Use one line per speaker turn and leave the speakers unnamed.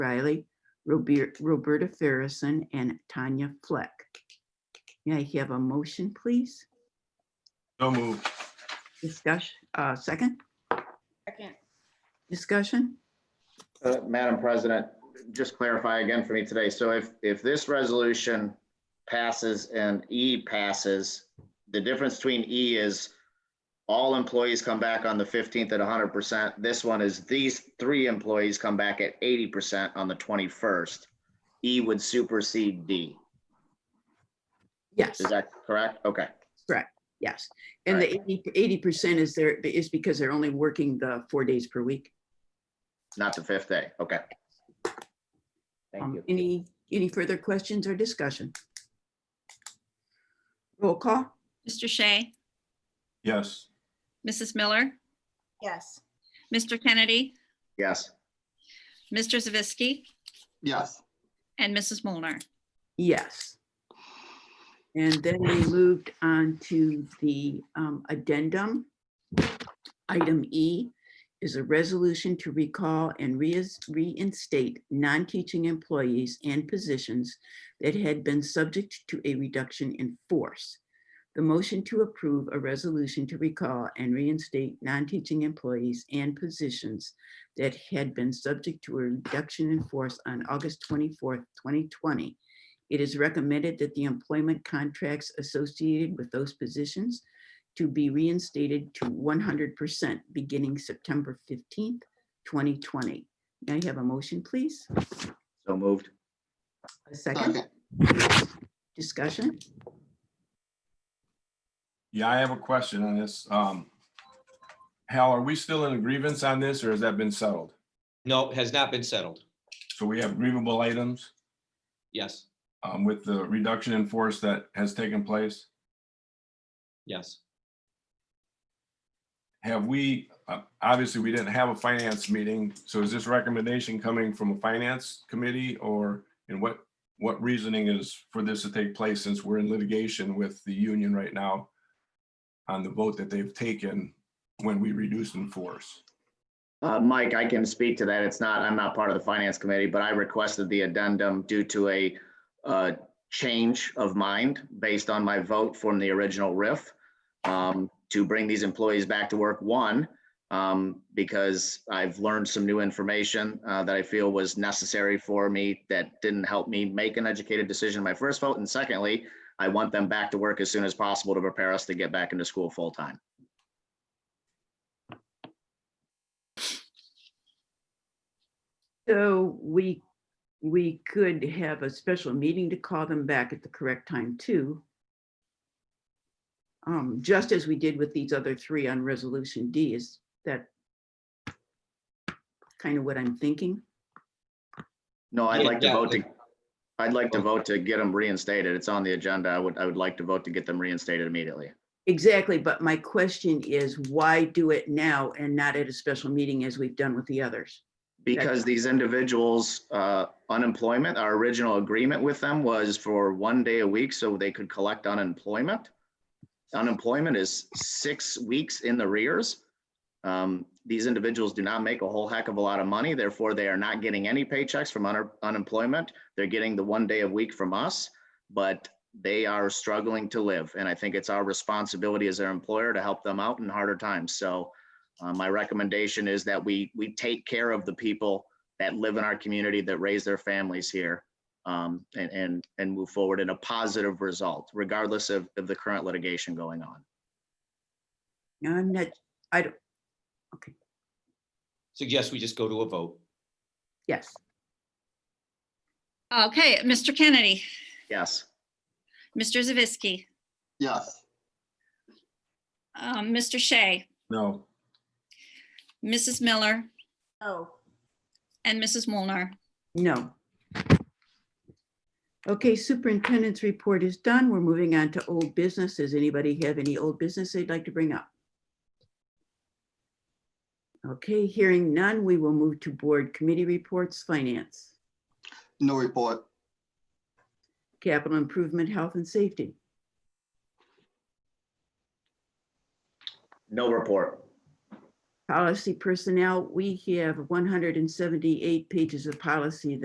Riley, Robert- Roberta Farrison, and Tanya Fleck. May I have a motion, please?
So moved.
Discussion, uh, second,
Second.
discussion?
Uh, Madam President, just clarify again for me today. So if, if this resolution passes and E passes, the difference between E is all employees come back on the 15th at 100%. This one is these three employees come back at 80% on the 21st. E would supersede D.
Yes,
Is that correct? Okay.
yes. And the 80 percent is there, is because they're only working the four days per week.
Not the fifth day. Okay. Thank
Um,
you.
Any, any further questions or discussion? Roll call?
Mr. Shea,
Yes.
Mrs. Miller,
Yes.
Mr. Kennedy,
Yes.
Mr. Zavisky,
yes,
and Mrs. Molnar.
Yes. And then we moved on to the um, addendum. Item E is a resolution to recall and reis- reinstate non-teaching employees and positions that had been subject to a reduction in force. The motion to approve a resolution to recall and reinstate non-teaching employees and positions that had been subject to a reduction in force on August 24th, 2020 it is recommended that the employment contracts associated with those positions to be reinstated to one hundred percent beginning September fifteenth, twenty twenty. May I have a motion, please?
So moved.
A second
second,
discussion?
Yeah, I have a question on this. Um, Hal, are we still in a grievance on this or has that been settled?
No, has not been settled.
So we have grievable items
Yes,
um, with the reduction in force that has taken place.
yes.
Have we, uh, obviously, we didn't have a finance meeting. So is this recommendation coming from a finance committee or and what, what reasoning is for this to take place since we're in litigation with the union right now on the vote that they've taken when we reduced in force?
Uh, Mike, I can speak to that. It's not, I'm not part of the finance committee, but I requested the addendum due to a uh, change of mind based on my vote from the original RIF um, to bring these employees back to work, one, um, because I've learned some new information uh, that I feel was necessary for me that didn't help me make an educated decision in my first vote. And secondly, I want them back to work as soon as possible to prepare us to get back into school full-time.
So we, we could have a special meeting to call them back at the correct time too. Um, just as we did with these other three on resolution D, is that kind of what I'm thinking?
No, I'd
Yeah,
like to
yeah,
vote to,
like-
I'd like to vote to get them reinstated. It's on the agenda. I would, I would like to vote to get them reinstated immediately.
Exactly, but my question is why do it now and not at a special meeting as we've done with the others?
Because these individuals, uh, unemployment, our original agreement with them was for one day a week so they could collect unemployment. Unemployment is six weeks in the rears. Um, these individuals do not make a whole heck of a lot of money, therefore they are not getting any paychecks from un- unemployment. They're getting the one day a week from us, but they are struggling to live. And I think it's our responsibility as their employer to help them out in harder times. So uh, my recommendation is that we, we take care of the people that live in our community, that raise their families here, um, and, and, and move forward in a positive result, regardless of, of the current litigation going on.
Now, I'm not, I don't,
Suggest we just go to a vote.
yes,
Okay, Mr. Kennedy,
Yes,
Mr. Zavisky,
yes,
um, Mr. Shea,
No,
Mrs. Miller,
Oh,
and Mrs. Molnar.
no. Okay, superintendent's report is done. We're moving on to old business. Does anybody have any old business they'd like to bring up? Okay, hearing none, we will move to board committee reports, finance,
no report,
capital improvement, health and safety.
no report.
Policy personnel, we have 178 pages of policy